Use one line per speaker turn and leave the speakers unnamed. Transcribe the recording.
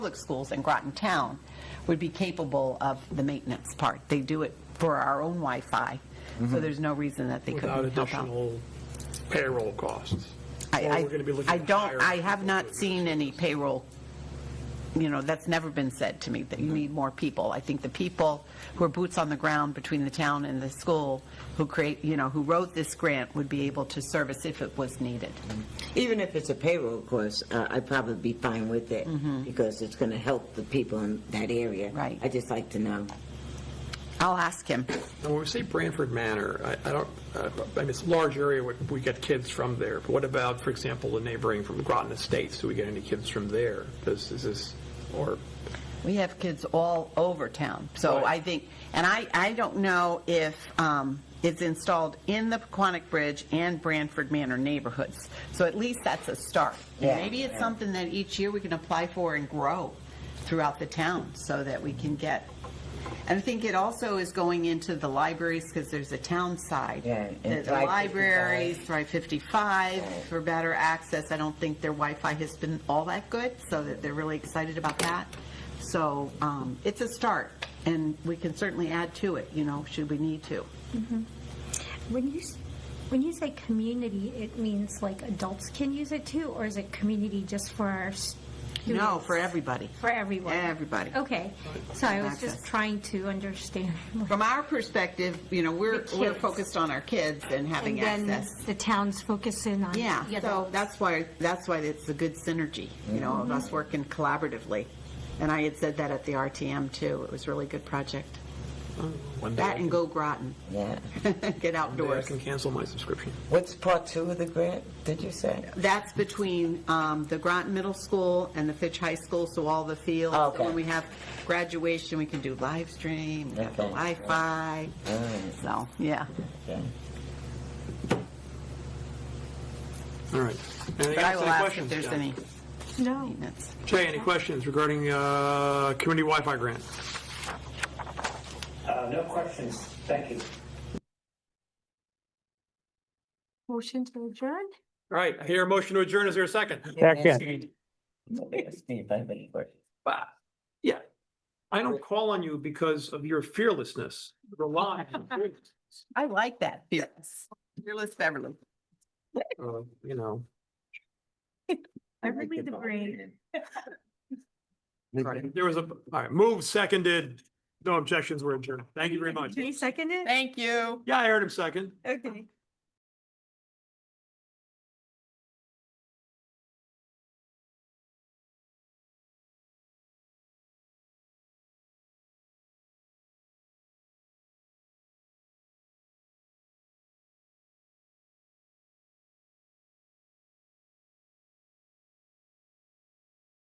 public schools in Groton Town would be capable of the maintenance part. They do it for our own Wi-Fi, so there's no reason that they
Mm-hmm. Without
couldn't help out.
additional payroll costs.
I-
Or
I-
we're going to be looking
I
to
don't,
hire
I have
people
not
to-
seen any payroll, you know, that's never been said to me, that
Mm-hmm.
you need more people. I think the people who are boots on the ground between the town and the school, who create, you know, who wrote this grant would be able to service if it was needed.
Even if it's a payroll course, uh, I'd probably be fine with it because it's going to help the people in that area.
Mm-hmm. Right.
I just like to know.
I'll ask him.
Now, when we say Branford Manor, I I don't, uh, I mean, it's a large area, where we get kids from there. But what about, for example, the neighboring from Groton Estates? Do we get any kids from there? Does, is this, or,
We have kids all over town, so
Right.
I think, and I, I don't know if um, it's installed in the Paquonic Bridge and Branford Manor neighborhoods, so at least that's a start. And
Yeah.
Maybe it's something that each year we can apply for and grow throughout the town, so that we can get, and I think it also is going into the libraries, because there's a town side.
Yeah, and
The the
Thrive 55.
libraries, Thrive 55, for better access, I don't think their Wi-Fi has been all that good, so that they're really excited about that. So um, it's a start, and we can certainly add to it, you know, should we need to.
When you, s- when you say community, it means like adults can use it too, or is it community just for our students?
No, for everybody.
For everyone?
Everybody.
Okay, so I was
Access.
just trying to understand.
From our perspective, you know, we're,
The
we're
kids.
focused on our kids and having
And then
access.
the town's focusing on.
Yeah,
the
so
adults.
that's why, that's why it's a good synergy, you know, of
Mm-hmm.
us working collaboratively. And I had said that at the RTM too, it was a really good project.
uh, one day I
That
can-
and go Groton,
Yeah.
get
one day I
outdoors.
can cancel my subscription.
What's part two of the grant, did you say?
That's between um, the Groton Middle School and the Fitch High School, so all the fields.
Okay.
So When we have graduation, we can do live stream, we have the
Okay.
Wi-Fi,
Alright.
so, yeah.
Okay.
All right. Anything
But I will
else?
ask
Any
if
questions,
there's
John?
any
No,
maintenance.
Jay, any questions regarding uh, community Wi-Fi grant?
Uh, No questions. Thank you.
motion to adjourn?
All right, I hear a motion to adjourn. Is there a second?
Second. Steve, I have any questions.
Bah, Yeah. I don't call on you because of your fearlessness. Rely on your uh, fearlessness.
I like that, fearless. Fearless Beverly.
Uh, You know.
I really the brain.
Right, There was a, all right, move seconded, no objections were adjourned. Thank you very much.
Can you second it?
Thank you.
Yeah, I heard him second.
Okay.